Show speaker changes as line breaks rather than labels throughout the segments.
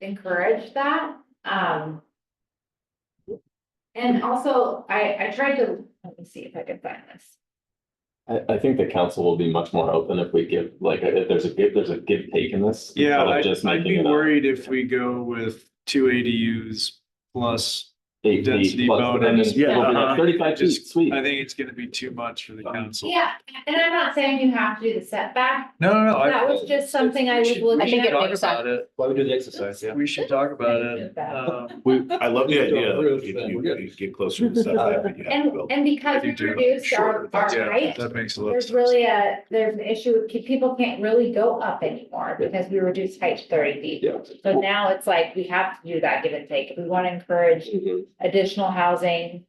encourage that, um. And also, I, I tried to, let me see if I can find this.
I, I think the council will be much more open if we give, like, if there's a give, there's a give take in this.
Yeah,
instead of
I'd,
just
I'd
making
be
it a
worried if we go with two ADUs plus,
eight feet
density
plus,
bonus.
and then
Yeah,
it'll be like
uh-huh.
Thirty-five feet,
Just-
sweet.
I think it's gonna be too much for the council.
Yeah, and I'm not saying you have to do the setback,
No, no, no. I-
that was just something I
we
was
should-
I
looking
think
at.
it
Talk
makes
about it.
Why we do the exercise, yeah.
We should talk about
Think
it.
about
Um,
We, I love the
Yeah,
idea,
so
that
we're-
if
we're
you,
good.
you get closer to the setback, but you have to
And,
build.
and
I
because we
do do it.
reduced our,
Sure,
our
yeah.
height,
that makes a lot of
there's
sense.
really a, there's an issue with, ki- people can't really go up anymore because we reduced height to thirty feet.
Yeah.
So now it's like, we have to do that give and take, if we wanna encourage
Mhm.
additional housing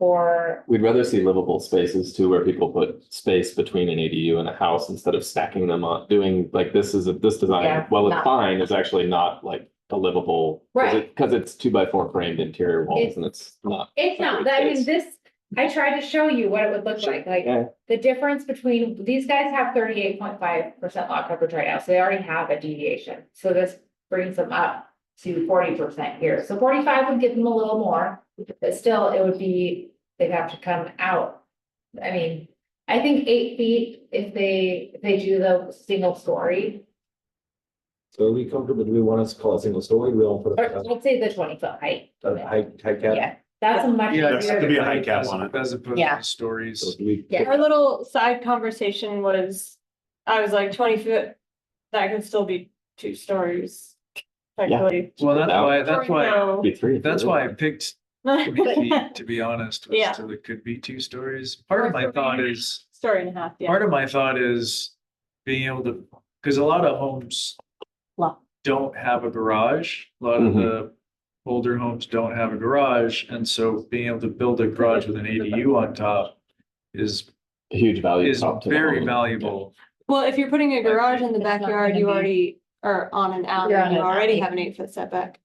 for
We'd rather see livable spaces too, where people put space between an ADU and a house instead of stacking them on, doing, like, this is, a this design,
Yeah,
well, it's
not-
fine, is actually not like a livable. 'cause it- Cause it's two by four framed interior walls
It's-
and it's not.
It's not, I mean, this, I tried to show you what it would look like, like,
Yeah.
the difference between, these guys have thirty-eight point five percent lot coverage right now, so they already have a deviation. So this brings them up to forty percent here, so forty-five would give them a little more, but still, it would be, they'd have to come out. I mean, I think eight feet, if they, if they do the single story,
So are we comfortable, do we want us to call it single story, we don't put
or
a,
let's say the twenty-foot height.
a height, height cap?
Yeah, that's a much.
Yeah,
There's to be a high cap
As-
on it.
As opposed
Yeah.
to stories.
So do we-
Yeah.
Our little side conversation was, I was like twenty foot, that could still be two stories. Technically.
Well, that's
Now-
why, that's why,
So-
Be three. if
that's
you
why I
really-
picked three feet, to be honest, was
Yeah.
so it could be two stories. Part of my thought is,
Story and a half, yeah.
part of my thought is being able to, because a lot of homes
Lot.
don't have a garage. A lot of
Mhm.
the older homes don't have a garage, and so being able to build a garage with an ADU on top is,
Huge value.
is
prop to the
very
home.
valuable.
Well, if you're putting a garage in the
It's not
backyard,
gonna
you
be-
already, or on an alley,
You're on
you
an
already
alley.
have an eight foot setback.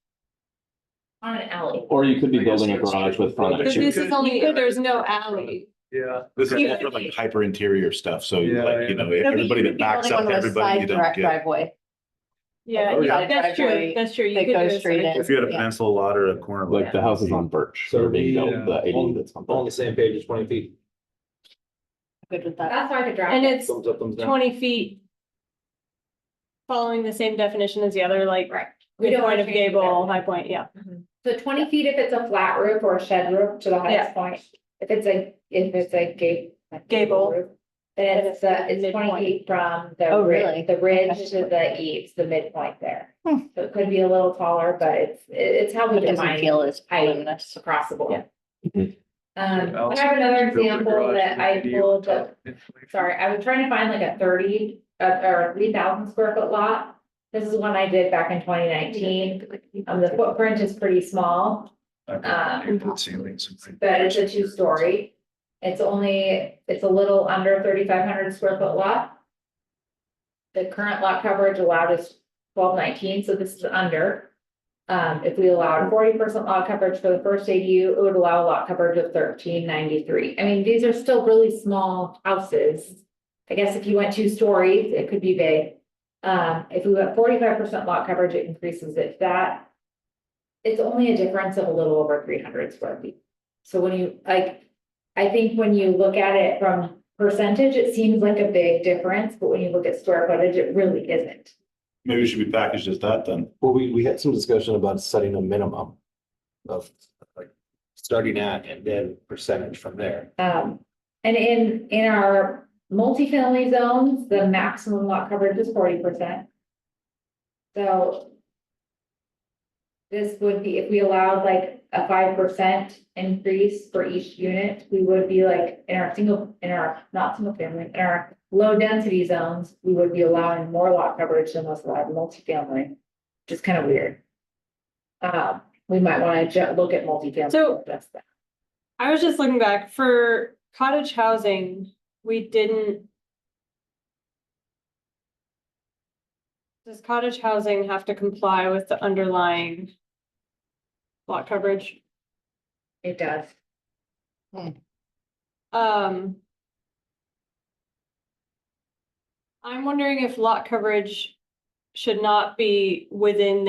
On an alley.
Or you could be
I guess
building a
that's
garage
true.
with frontage.
But
But
you
this
could-
is only
you
if
could-
there's no alley.
Yeah.
This is
Yeah.
for like hyper interior stuff, so
Yeah,
like, you
yeah.
know,
No, but you
everybody that
could be
backs
building
up,
one of those
everybody you
side
don't
direct
get.
Driveway
Yeah,
Oh, yeah.
yeah, that's true,
Driveway
that's true. You
that
could do
goes
a
straight
side-
in.
If you had a
Yeah.
peninsula lot or a corner lot.
Like the houses on Birch,
So
they're being
we,
built, the
uh,
ADU
on-
that's on
All on
Birch.
the same page, it's twenty feet,
Good with that.
That's why the drive.
And it's
thumbs up, thumbs down.
twenty feet. Following the same definition as the other, like,
Right. We
good
don't
point
wanna
of
change the
gable, high point, yeah.
So twenty feet if it's a flat roof or a shed roof to the highest point, if it's a, if it's a gate.
Gable.
roof, Then it's, uh, it's
Midpoint.
twenty feet from the
Oh, really?
ridge, the ridge
That's Hmm.
to the eaves, the midpoint there. So it could be a little taller, but it's, it's how we
It doesn't
define
feel as
I-
voluminous.
across the board.
Yeah.
Um, I
Else-
have another
Build a
example
garage
that
with
I
ADU on
pulled up
top.
sorry, I was trying to find like a thirty, uh, or three thousand square foot lot. This is one I did back in twenty nineteen. Um, the footprint is pretty small,
I've
Um,
got paper ceilings and things.
but it's a two story. It's only, it's a little under thirty five hundred square foot lot. The current lot coverage allowed is twelve nineteen, so this is under. Um, if we allowed forty percent lot coverage for the first ADU, it would allow lot coverage of thirteen ninety-three. I mean, these are still really small houses. I guess if you went two stories, it could be big. Um, if we went forty-five percent lot coverage, it increases it that. It's only a difference of a little over three hundred square feet. So when you, like, I think when you look at it from percentage, it seems like a big difference, but when you look at square footage, it really isn't.
Maybe it should be packaged as that then.
Well, we, we had some discussion about setting a minimum of like starting at and then percentage from there.
Um, and in, in our multifamily zones, the maximum lot coverage is forty percent. So. This would be, if we allowed like a five percent increase for each unit, we would be like, in our single, in our, not single family, in our. Low density zones, we would be allowing more lot coverage than what's allowed in multifamily, which is kind of weird. Um, we might wanna ju- look at multifamily.
So-
that's that.
I was just looking back for cottage housing, we didn't. Does cottage housing have to comply with the underlying? Lot coverage,
It does.
um. I'm wondering if lot coverage should not be within